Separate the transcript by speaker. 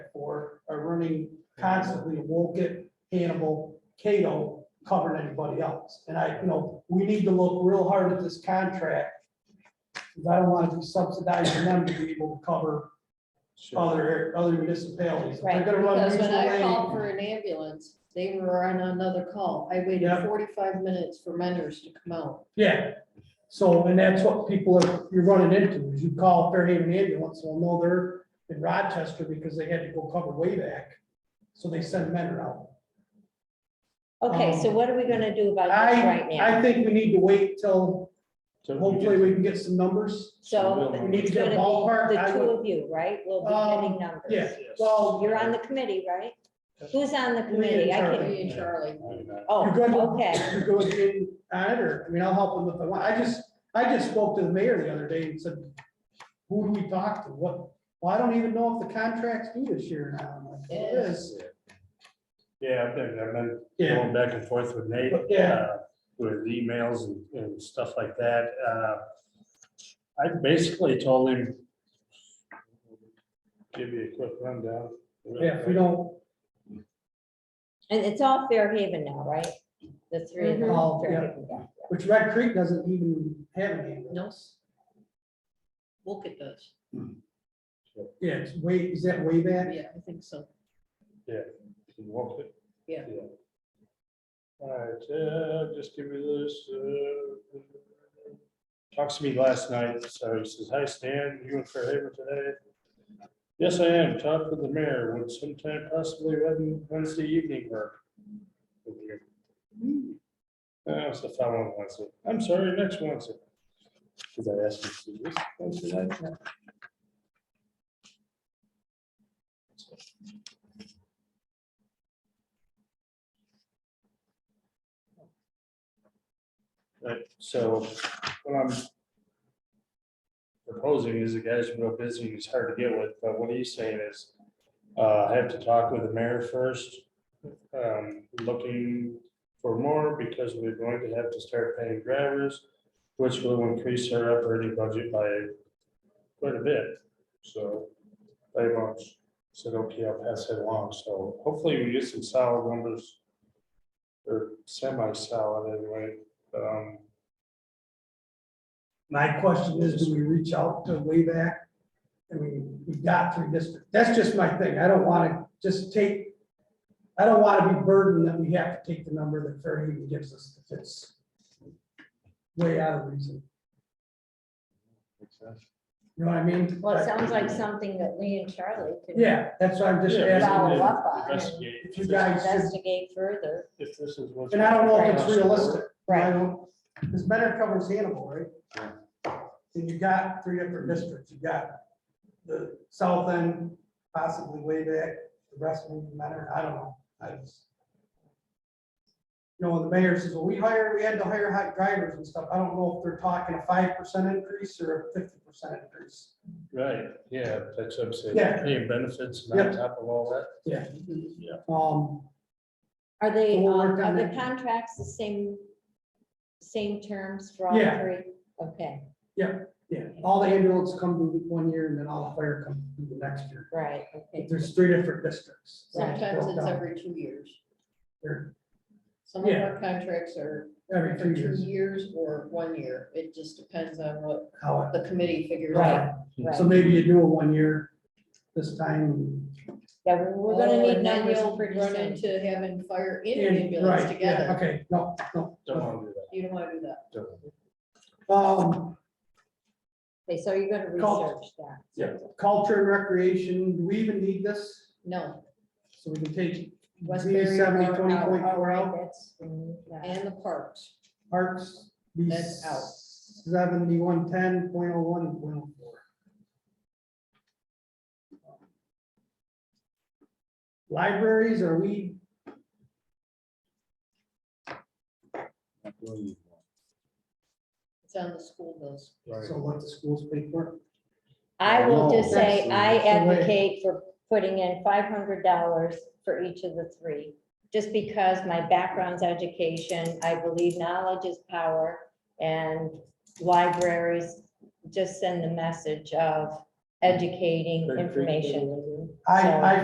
Speaker 1: me constantly, Woken, Hannibal, Cato covering anybody else. And I, you know, we need to look real hard at this contract. Because I don't want to be subsidizing them to be able to cover other, other municipalities. If they're
Speaker 2: Right,
Speaker 1: gonna run
Speaker 2: because when
Speaker 1: mutual
Speaker 2: I
Speaker 1: aid-
Speaker 2: called for an ambulance, they were on another call. I waited
Speaker 1: Yeah.
Speaker 2: forty-five minutes for vendors to come out.
Speaker 1: Yeah, so, and that's what people are, you're running into, is you call Fairhaven ambulance, well, no, they're in Rochester because they had to go cover way back. So they send men around.
Speaker 3: Okay, so
Speaker 1: Um,
Speaker 3: what are we gonna do about this
Speaker 1: I,
Speaker 3: right now?
Speaker 1: I think we need to wait till,
Speaker 4: So we
Speaker 1: hopefully
Speaker 4: get-
Speaker 1: we can get some numbers.
Speaker 3: So
Speaker 1: We need
Speaker 3: it's
Speaker 1: to get
Speaker 3: gonna
Speaker 1: a
Speaker 3: be
Speaker 1: ballpark.
Speaker 3: the
Speaker 1: I
Speaker 3: two
Speaker 1: would-
Speaker 3: of you, right? We'll be
Speaker 1: Um,
Speaker 3: getting numbers.
Speaker 1: Yeah, well,
Speaker 3: You're on the committee, right? Who's on the
Speaker 1: Me and
Speaker 3: committee? I can,
Speaker 1: Charlie.
Speaker 2: Me and Charlie.
Speaker 3: oh,
Speaker 1: you're good,
Speaker 3: okay,
Speaker 1: you're good in on it, or, I mean, I'll help them if I want, I just, I just spoke to the mayor the other day and said, who do we talk to, what, well, I don't even know if the contracts due this year now, I'm like, well, it is.
Speaker 4: Yeah, I've been, I've been
Speaker 1: Yeah,
Speaker 4: going back and forth with Nate.
Speaker 1: Yeah.
Speaker 4: uh, With emails and, and stuff like that. Uh, I basically told him. Give you a quick rundown.
Speaker 1: yeah, if we don't,
Speaker 3: and it's all Fair Haven now, right? The three of them,
Speaker 1: Mhm. All,
Speaker 3: Fair
Speaker 1: yeah.
Speaker 3: Haven, yeah.
Speaker 1: which Red Creek doesn't even have an ambulance.
Speaker 2: Look at those.
Speaker 1: Yeah, it's way, is that way back?
Speaker 2: Yeah, I think so.
Speaker 4: Can you walk it?
Speaker 2: Yeah.
Speaker 4: All right, uh, just give me this, uh, talks to me last night, so he says, hi Stan, you in Fairhaven today? Yes, I am, talked with the mayor, would sometime possibly Wed- Wednesday evening work. with you?" Uh, it's the following Wednesday, I'm sorry, next Wednesday. Cause I asked him to do this Wednesday night. Right, so what I'm proposing is the guy's real busy, he's hard to get with, but what he's saying is, uh, I have to talk with the mayor first. Um, looking for more because we're going to have to start paying drivers, which will increase our operating budget by quite a bit. So, by much, said, okay, I'll pass it along, so hopefully we get some solid numbers. Or semi-solid anyway, um,
Speaker 1: My question is, do we reach out to way back? I mean, we got three districts, that's just my thing, I don't wanna just take, I don't wanna be burdened that we have to take the number that Fairhaven gives us, if it's way out of reason, you know what I mean?
Speaker 3: Well, it sounds like something that Lee and Charlie could
Speaker 1: Yeah, that's why I'm just
Speaker 4: Yeah, we
Speaker 3: Follow
Speaker 1: asking,
Speaker 4: can
Speaker 1: if-
Speaker 3: up on it.
Speaker 4: investigate
Speaker 1: if
Speaker 4: if
Speaker 1: you
Speaker 4: this-
Speaker 1: guys, should-
Speaker 3: investigate further.
Speaker 4: if this is what.
Speaker 1: and I don't know if it's realistic. I
Speaker 3: Right,
Speaker 1: don't- This better covers Hannibal, right?
Speaker 4: Yeah.
Speaker 1: And you got three different districts, you got the south end, possibly way back, the rest of them matter, I don't know, I just. You know, when the mayor says, well, we hired, we had to hire hot drivers and stuff, I don't know if they're talking a five percent increase or a fifty percent increase.
Speaker 4: Right, yeah, that's what I'm saying,
Speaker 1: Yeah.
Speaker 4: paying benefits and on top of all that.
Speaker 1: Yeah.
Speaker 4: Yeah.
Speaker 1: Um,
Speaker 3: are they,
Speaker 1: We'll
Speaker 3: um,
Speaker 1: work on
Speaker 3: are the
Speaker 1: that.
Speaker 3: contracts the same, same terms for all
Speaker 1: Yeah.
Speaker 3: three? Okay,
Speaker 1: yeah, all the ambulance come due one year and then all the fire come due the next year,
Speaker 3: right, okay.
Speaker 1: If there's three different districts. so it's
Speaker 2: Sometimes
Speaker 1: broke
Speaker 2: it's
Speaker 1: down.
Speaker 2: every two years.
Speaker 1: They're
Speaker 2: Some of
Speaker 1: Yeah.
Speaker 2: our contracts are
Speaker 1: Every
Speaker 2: for
Speaker 1: two
Speaker 2: two
Speaker 1: years,
Speaker 2: years or one year. It just depends on what
Speaker 1: how it.
Speaker 2: the committee figures out.
Speaker 1: Right. So maybe you do it one year this time.
Speaker 3: Yeah, we- we're gonna
Speaker 2: Oh,
Speaker 3: need
Speaker 2: and then
Speaker 3: numbers
Speaker 2: you'll
Speaker 3: pretty
Speaker 2: Run
Speaker 3: soon.
Speaker 2: into having fire and
Speaker 1: and- right,
Speaker 2: ambulance
Speaker 1: yeah,
Speaker 2: together.
Speaker 1: Okay, no, no.
Speaker 4: Don't want to do
Speaker 2: You don't wanna do that.
Speaker 4: that. don't.
Speaker 1: Um,
Speaker 3: Okay, so you're gonna
Speaker 1: Call-
Speaker 3: research that.
Speaker 1: culture and recreation, do we even need this?
Speaker 2: No,
Speaker 1: So we can take B
Speaker 2: Westbury
Speaker 1: seventy
Speaker 2: Park
Speaker 1: twenty
Speaker 2: out,
Speaker 1: point four
Speaker 3: Alright,
Speaker 1: out,
Speaker 3: that's, mm, yeah.
Speaker 2: and the parks.
Speaker 1: parks, B
Speaker 2: That's out.
Speaker 1: seventy-one ten point oh one point oh four. Libraries, are we,
Speaker 2: It's on the school bills.
Speaker 1: so let the schools pay for
Speaker 3: I will
Speaker 1: No,
Speaker 3: just say,
Speaker 1: that's-
Speaker 3: I
Speaker 1: that's the way-
Speaker 3: advocate for putting in five hundred dollars for each of the three. Just because my background's education, I believe knowledge is power and libraries just send the message of educating information.
Speaker 1: it? I,
Speaker 3: So-
Speaker 1: I